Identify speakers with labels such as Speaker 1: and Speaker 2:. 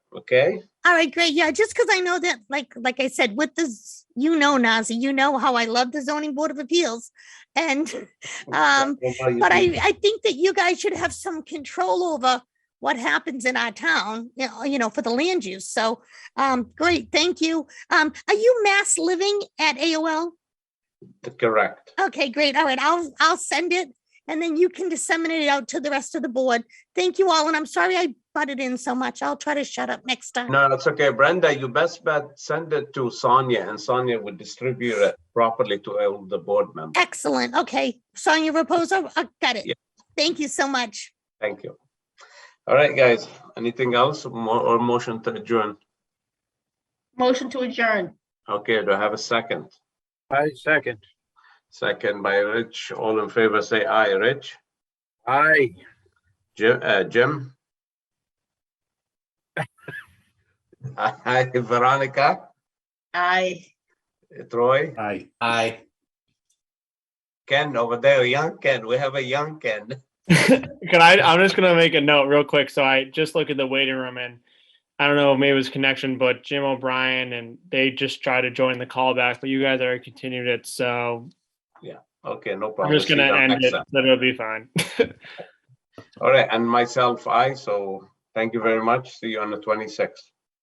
Speaker 1: Okay.
Speaker 2: All right, great. Yeah, just because I know that, like, like I said, with this, you know, Nazi, you know how I love the zoning board of appeals, and um, but I, I think that you guys should have some control over what happens in our town, you know, you know, for the land use. So, um, great, thank you. Um, are you mass living at AOL?
Speaker 1: Correct.
Speaker 2: Okay, great. All right, I'll, I'll send it, and then you can disseminate it out to the rest of the board. Thank you all, and I'm sorry I butted in so much. I'll try to shut up next time.
Speaker 1: No, it's okay. Brenda, you best bet send it to Sonia and Sonia will distribute it properly to all the board members.
Speaker 2: Excellent. Okay. Sonia Reposo, I got it.
Speaker 1: Yeah.
Speaker 2: Thank you so much.
Speaker 1: Thank you. All right, guys. Anything else Mo- or motion to adjourn?
Speaker 3: Motion to adjourn.
Speaker 1: Okay, do I have a second?
Speaker 4: I second.
Speaker 1: Second by Rich. All in favor, say aye. Rich?
Speaker 4: Aye.
Speaker 1: Jim? uh, Jim? Aye, Veronica?
Speaker 3: Aye.
Speaker 1: Troy?
Speaker 5: Aye. Aye.
Speaker 1: Ken over there, young Ken. We have a young Ken.
Speaker 6: Can I? I'm just gonna make a note real quick. So I just look at the waiting room, and I don't know, maybe it was connection, but Jim O'Brien and they just tried to join the callback, but you guys already continued it, so
Speaker 1: Okay, no
Speaker 6: I'm
Speaker 1: problem.
Speaker 6: just
Speaker 1: See
Speaker 6: gonna
Speaker 1: you
Speaker 6: end
Speaker 1: next
Speaker 6: it.
Speaker 1: time.
Speaker 6: Then it'll be fine.
Speaker 1: All right, and myself, I, so thank you very much. See you on the twenty-sixth.